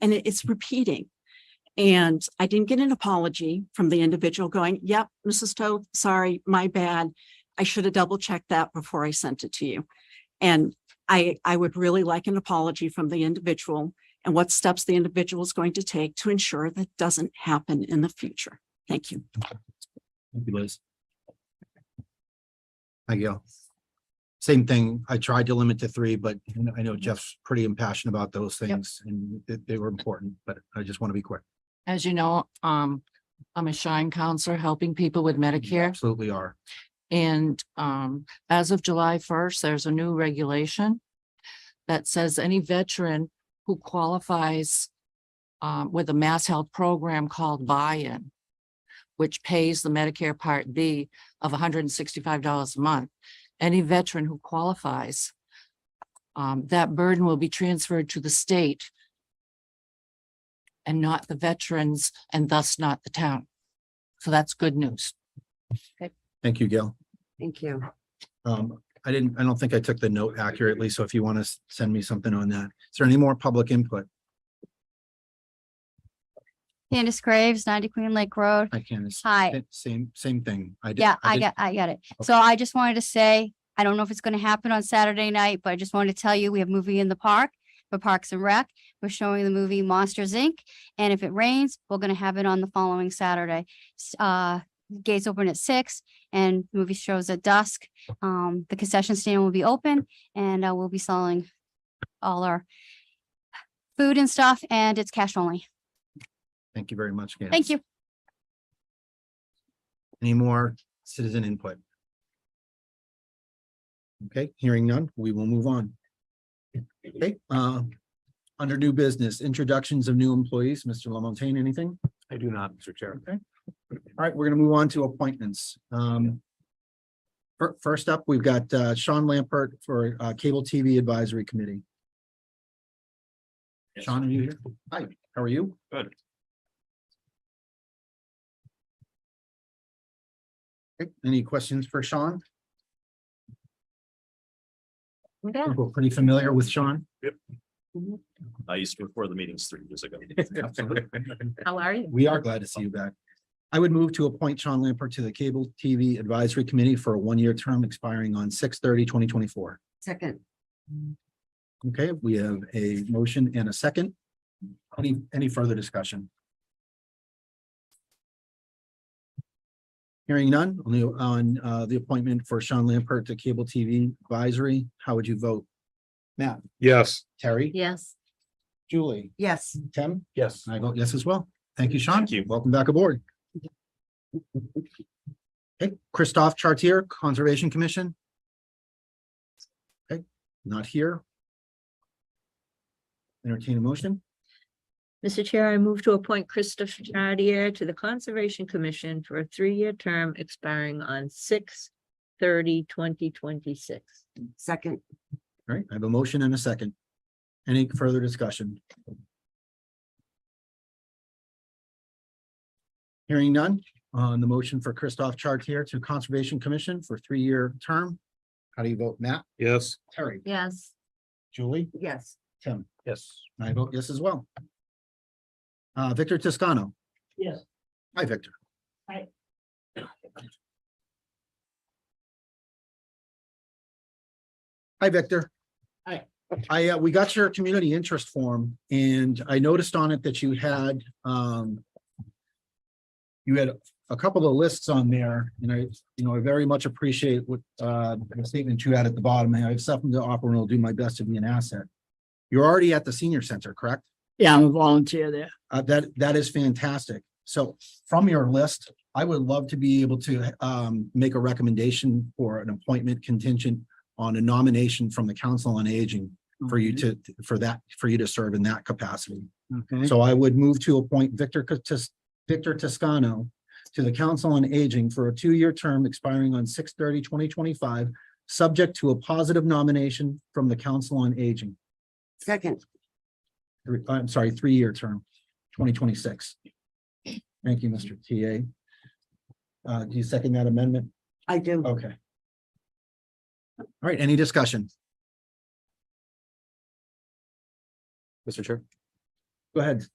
and it- it's repeating. And I didn't get an apology from the individual going, yep, Mrs. Toth, sorry, my bad. I should have double checked that before I sent it to you. And I, I would really like an apology from the individual and what steps the individual is going to take to ensure that doesn't happen in the future. Thank you. Thank you, Liz. Hi, Gail. Same thing. I tried to limit to three, but you know, I know Jeff's pretty impassioned about those things and they, they were important, but I just want to be quick. As you know, um, I'm a Shine counselor helping people with You Medicare. Absolutely are. And um, as of July first, there's a new regulation that says any veteran who qualifies um, with a mass health program called buy-in, which pays the Medicare Part B of hundred and sixty-five dollars a month, any veteran who qualifies, um, that burden will be transferred to the state and not the veterans and thus not the town. So that's good news. Thank you, Gail. Thank you. Um, I didn't, I don't think I took the note accurately, so if you want to send me something on that. Is there any more public input? Candace Graves, ninety Queen Lake Road. I can't. it's Hi. sa- Same, same thing. I did. Yeah, I did- got, I got it. So I just wanted to say, I don't know if it's gonna happen on Saturday night, but I just wanted to tell you, we have movie in the park for Parks and Rec. We're showing the movie Monsters Inc. And if it rains, we're gonna have it on the following Saturday. S- Uh, gates open at six and movie shows at dusk. Um, the concession stand will be open and uh, we'll be selling all our food and stuff and it's cash only. Thank you very much, Gail. Thank you. Any more citizen input? Okay, hearing none, we will move on. Okay, uh, under new business, introductions of new employees, Mr. Lamontaine, anything? I do not, Mr. Chair. Okay. All right, we're gonna move on to appointments. Um. fir- First up, we've got uh, Sean Lampert for uh, Cable TV Advisory Committee. Yes. Sean, are you here? Hi, how are you? Good. Okay, Any questions for Sean? Okay. We're pretty familiar with Sean. I used to record the meetings three years ago. How are you? We are glad to see you back. I would move to appoint Sean Lampert to the Cable TV Advisory Committee for a one-year term expiring on 2024. Second, Okay, we have a motion and a second. Any, any further discussion? Hearing none on the, on uh, the appointment for Sean Lampert to Cable TV Advisory, how would you vote? Matt, Yes, Terry, yes. Julie, Yes. Tim? Yes. I vote yes as well. Thank you, Sean. Thank you. Welcome back aboard. Okay, Christophe Chartier, Conservation Commission. Okay, not here. Entertain a motion. Mr. Chair, I move to appoint Christopher Chartier to the Conservation Commission for a three-year term expiring on 6-30-2026. Second, All right, I have a motion and a second. Any further discussion? Hearing none on the motion for Christophe Chartier to Conservation Commission for three-year term. How do you vote, Matt? yes, Terry? Yes. Julie? yes. Tim? Yes. I vote yes as well. Uh, Victor Toscano. Yes. Hi, Victor. Hi. Hi, Victor. Hi. I, uh, we got your community interest form and I noticed on it that you had, um, you had a couple of lists on there and I, you know, I very much appreciate what, uh, the statement you had at the bottom. I have something to offer and I'll do my best to be an asset. You're already at the senior center, correct? Yeah, I'm a volunteer there. Uh, that, that is fantastic. So from your list, I would love to be able to, um, make a recommendation for an appointment contingent on a nomination from the Council on Aging for you to, for that, for you to serve in that capacity. Okay, So I would move to appoint Victor, Tis- Victor Toscano to the Council on Aging for a two-year term expiring on 2025, subject to a positive nomination from the Council on Aging. Second, three, uh, I'm sorry, three-year term, twenty twenty-six. Thank you, Mr. TA. Uh, do you second that amendment? I do. Okay. All right, any discussion? Mr. Chair. Go ahead.